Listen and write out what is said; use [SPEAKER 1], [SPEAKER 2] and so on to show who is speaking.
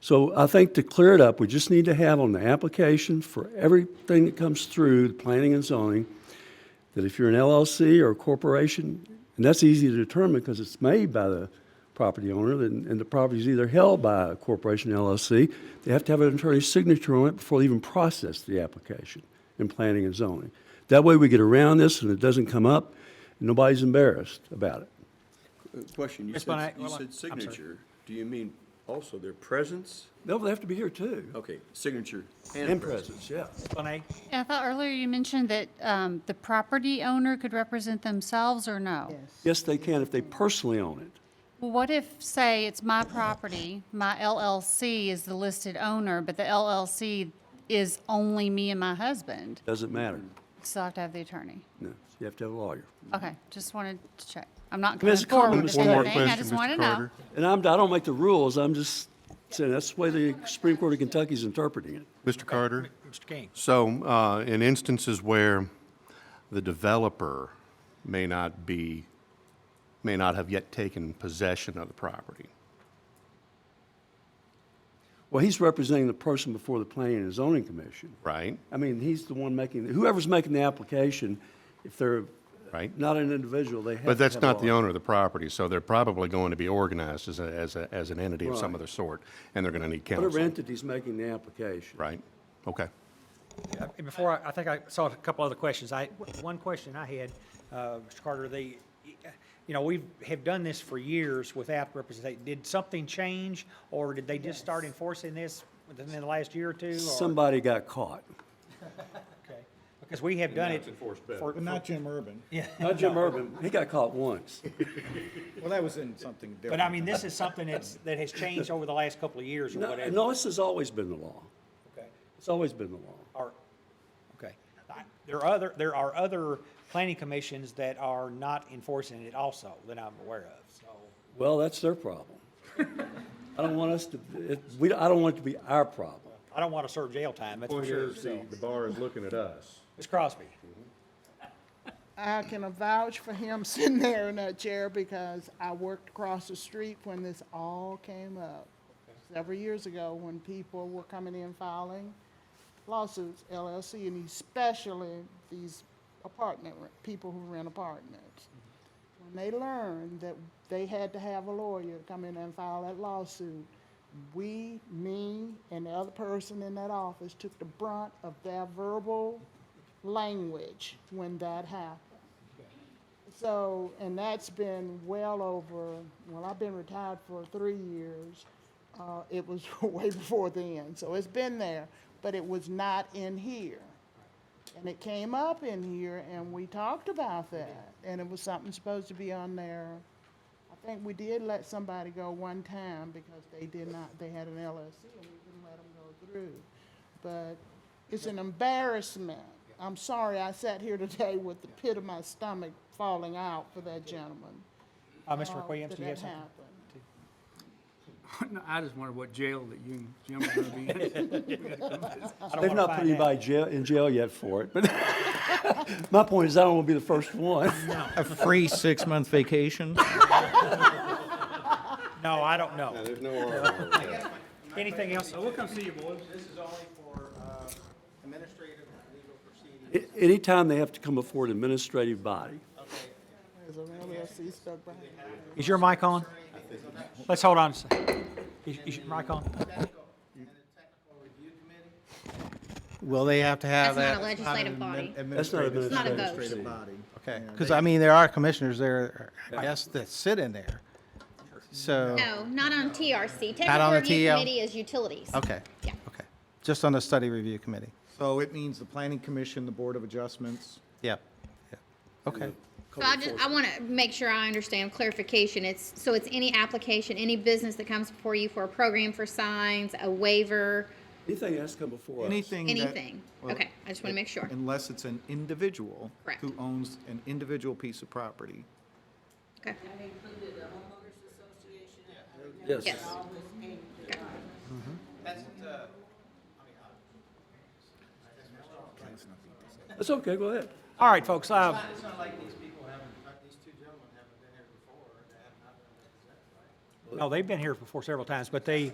[SPEAKER 1] So I think to clear it up, we just need to have on the application for everything that comes through the planning and zoning, that if you're an LLC or a corporation, and that's easy to determine because it's made by the property owner, and, and the property is either held by a corporation or LLC, they have to have an attorney's signature on it before they even process the application in planning and zoning. That way we get around this and it doesn't come up, and nobody's embarrassed about it.
[SPEAKER 2] Uh, Question, you
[SPEAKER 3] Ms. Bonet,
[SPEAKER 2] said, you
[SPEAKER 3] hold on.
[SPEAKER 2] said
[SPEAKER 3] I'm sorry.
[SPEAKER 2] signature, do you mean also their presence?
[SPEAKER 1] No, they have to be here too.
[SPEAKER 2] Okay, signature
[SPEAKER 1] And
[SPEAKER 2] and presence.
[SPEAKER 1] presence, yeah.
[SPEAKER 3] Bonet?
[SPEAKER 4] Yeah, I thought earlier you mentioned that um, the property owner could represent themselves or no?
[SPEAKER 1] Yes, they can if they personally own it.
[SPEAKER 4] Well, What if, say, it's my property, my LLC is the listed owner, but the LLC is only me and my husband?
[SPEAKER 1] Doesn't matter.
[SPEAKER 4] Still have to have the attorney.
[SPEAKER 1] No, you have to have a lawyer.
[SPEAKER 4] Okay, just wanted to check. I'm not coming
[SPEAKER 1] Ms.
[SPEAKER 4] forward
[SPEAKER 1] Collins, one
[SPEAKER 4] with
[SPEAKER 1] more
[SPEAKER 4] anything, I just want to know.
[SPEAKER 1] And I'm, I don't make the rules, I'm just saying, that's the way the Supreme Court of Kentucky is interpreting it.
[SPEAKER 5] Mr. Carter?
[SPEAKER 3] Mr. King?
[SPEAKER 5] So, uh, in instances where the developer may not be, may not have yet taken possession of the property,
[SPEAKER 1] Well, he's representing the person before the Planning and Zoning Commission.
[SPEAKER 5] right?
[SPEAKER 1] I mean, he's the one making, whoever's making the application, if they're
[SPEAKER 5] Right.
[SPEAKER 1] not an individual, they have to
[SPEAKER 5] But that's
[SPEAKER 1] have a
[SPEAKER 5] not the
[SPEAKER 1] lawyer.
[SPEAKER 5] owner of the property, so they're probably going to be organized as, a- as, a- as an entity of some
[SPEAKER 1] Right.
[SPEAKER 5] other sort, and they're going to need
[SPEAKER 1] Whatever
[SPEAKER 5] counsel,
[SPEAKER 1] entity's making the application.
[SPEAKER 5] right? Okay.
[SPEAKER 3] And before, I I think I saw a couple other questions. I, one question I had, uh, Mr. Carter, the, you know, we have done this for years without representation. Did something change, or did they just start enforcing this within the last year or two? or-
[SPEAKER 1] Somebody got caught.
[SPEAKER 3] Okay. Because we have done it. for-
[SPEAKER 6] But not Jim Urban.
[SPEAKER 1] Not Jim Urban, he got caught once.
[SPEAKER 6] Well, that was in something different.
[SPEAKER 3] But I mean, this is something that's, that has changed over the last couple of years or
[SPEAKER 1] No,
[SPEAKER 3] whatever.
[SPEAKER 1] no, this has always been the law.
[SPEAKER 3] Okay.
[SPEAKER 1] It's always been the law.
[SPEAKER 3] Are, okay. I- There are other, there are other planning commissions that are not enforcing it also that I'm aware of, so.
[SPEAKER 1] Well, that's their problem. I don't want us to, it, we, I don't want it to be our problem.
[SPEAKER 3] I don't want to serve jail time, that's for sure. so.
[SPEAKER 5] the bar is looking at us.
[SPEAKER 3] Ms. Crosby,
[SPEAKER 7] I can vouch for him sitting there in that chair because I worked across the street when this all came up. Several years ago, when people were coming in filing lawsuits, LLC, and especially these apartment, re- people who rent apartments. When they learned that they had to have a lawyer come in and file that lawsuit, we, me, and the other person in that office took the brunt of their verbal language when that happened. So, and that's been well over, well, I've been retired for three years. Uh, it was way before then, so it's been there, but it was not in here. And it came up in here and we talked about that, and it was something supposed to be on there. I think we did let somebody go one time because they did not, they had an LLC and we didn't let them go through. But it's an embarrassment. I'm sorry I sat here today with the pit of my stomach falling out for that gentleman.
[SPEAKER 3] uh, Mr.
[SPEAKER 7] uh,
[SPEAKER 3] Williams,
[SPEAKER 7] that
[SPEAKER 3] do you have
[SPEAKER 7] that
[SPEAKER 3] something?
[SPEAKER 7] happened.
[SPEAKER 8] No, I just wonder what jail that you and Jim are gonna be in.
[SPEAKER 3] I don't
[SPEAKER 1] They've
[SPEAKER 3] wanna
[SPEAKER 1] not put
[SPEAKER 3] find out.
[SPEAKER 1] anybody jail, in jail yet for it, but my point is I don't want to be the first one.
[SPEAKER 9] A free six-month vacation?
[SPEAKER 3] No, I don't know.
[SPEAKER 5] There's no uh, order.
[SPEAKER 3] Anything else?
[SPEAKER 8] We'll come see you, boys.
[SPEAKER 10] This is only for uh, administrative and legal proceedings.
[SPEAKER 1] A- Anytime they have to come before an administrative body,
[SPEAKER 7] There's an LLC stuck behind it.
[SPEAKER 3] Is your mic on? Let's hold on. a sec. Is, is your mic on?
[SPEAKER 9] Will they have to have
[SPEAKER 11] That's
[SPEAKER 9] that?
[SPEAKER 11] not a legislative body.
[SPEAKER 1] that's not
[SPEAKER 6] Administrative,
[SPEAKER 11] not a
[SPEAKER 1] administrative.
[SPEAKER 11] ghost.
[SPEAKER 6] administrative body.
[SPEAKER 9] Okay, because I mean, there are commissioners there, I guess, that sit in there. So,
[SPEAKER 11] No, not on TRC.
[SPEAKER 9] on
[SPEAKER 11] Technical
[SPEAKER 9] the
[SPEAKER 11] Review
[SPEAKER 9] TL?
[SPEAKER 11] Committee is utilities.
[SPEAKER 9] okay,
[SPEAKER 11] Yeah.
[SPEAKER 9] okay. Just on the study review committee.
[SPEAKER 6] So it means the planning commission, the board of adjustments.
[SPEAKER 9] Yeah, yeah. Okay.
[SPEAKER 11] So I just, I want to make sure I understand clarification. It's, so it's any application, any business that comes before you for a program for signs, a waiver,
[SPEAKER 1] Anything that has to come before us.
[SPEAKER 6] Anything that-
[SPEAKER 11] anything.
[SPEAKER 6] well,
[SPEAKER 11] Okay, I just want to make sure.
[SPEAKER 6] Unless it's an individual.
[SPEAKER 11] Correct.
[SPEAKER 6] Who owns an individual piece of property.
[SPEAKER 11] Okay.
[SPEAKER 1] Yes.
[SPEAKER 11] Yes.
[SPEAKER 10] That's, uh,
[SPEAKER 1] That's okay, go ahead.
[SPEAKER 3] All right, folks, uh,
[SPEAKER 10] it's not like these people haven't, like these two gentlemen haven't been here before, and they have not been represented, right?
[SPEAKER 3] No, they've been here before several times, but they.